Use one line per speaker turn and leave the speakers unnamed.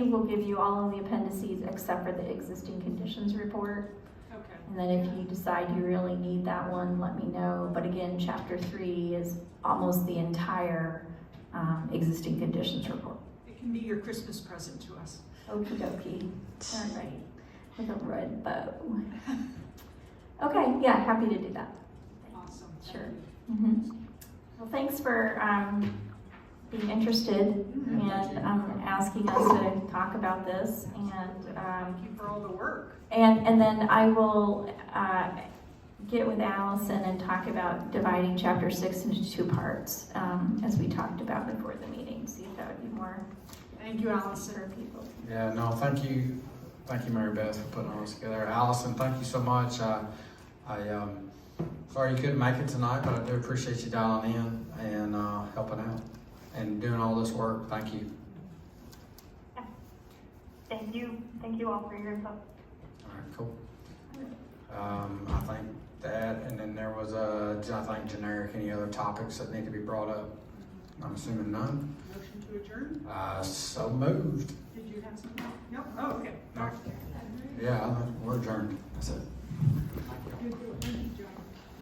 will give you all of the appendices except for the existing conditions report.
Okay.
And then if you decide you really need that one, let me know. But again, chapter three is almost the entire, um, existing conditions report.
It can be your Christmas present to us.
Okey dokey, alright, with a red bow. Okay, yeah, happy to do that.
Awesome. Thank
Sure.
you.
Mhm. Well, thanks for, um, being interested and, um, asking us to talk about this and, um,
Thank you for all the work.
and, and then I will, uh, get with Allison and talk about dividing chapter six into two parts, um, as we talked about before the meeting, see if that would be more
Thank you,
for
Allison.
people.
Yeah, no, thank you, thank you, Mary Beth, for putting all this together. Allison, thank you so much. I, I, um, sorry you couldn't make it tonight, but I do appreciate you dialing in and uh, helping out and doing all this work. Thank you.
Thank you. Thank you all for your input.
All right, cool. Um, I think that, and then there was a, I think generic, any other topics that need to be brought up? I'm assuming none.
Motion to adjourn?
Uh, so moved.
Did you have something? No? Oh, okay.
No. Yeah, I- we're adjourned. That's it.